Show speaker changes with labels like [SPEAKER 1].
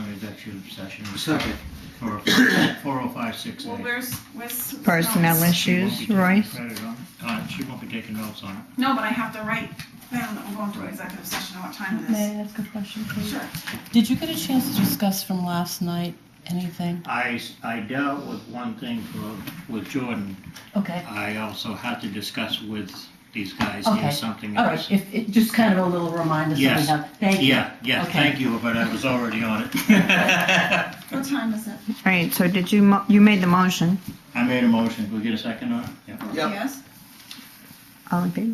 [SPEAKER 1] executive session.
[SPEAKER 2] Second.
[SPEAKER 1] For 4056A.
[SPEAKER 3] Well, where's, where's?
[SPEAKER 4] Personnel
[SPEAKER 3] notes?
[SPEAKER 1] She won't
[SPEAKER 4] issues,
[SPEAKER 1] be taking
[SPEAKER 4] Royce?
[SPEAKER 1] credit on- uh, She won't be taking notes on it.
[SPEAKER 3] No, but I have to write down that we're going to executive session and what time it is.
[SPEAKER 5] May I ask a question, please?
[SPEAKER 3] Sure.
[SPEAKER 5] Did you get a chance to discuss from last night anything?
[SPEAKER 1] I, s- I dealt with one thing for, with Jordan.
[SPEAKER 5] Okay.
[SPEAKER 1] I also had to discuss with these guys
[SPEAKER 5] Okay.
[SPEAKER 1] here something
[SPEAKER 5] All right.
[SPEAKER 1] else.
[SPEAKER 5] If it, just kind of a little reminder. So we
[SPEAKER 1] Yes.
[SPEAKER 5] have, thank you.
[SPEAKER 1] Yeah, yeah,
[SPEAKER 5] Okay.
[SPEAKER 1] thank you, but I was already on it.
[SPEAKER 3] What time is it?
[SPEAKER 4] All right, so did you, mo- you made the motion,
[SPEAKER 1] I made a motion. Can we get a second on it? Yeah.
[SPEAKER 2] Yep.
[SPEAKER 3] Yes?
[SPEAKER 4] all in favor?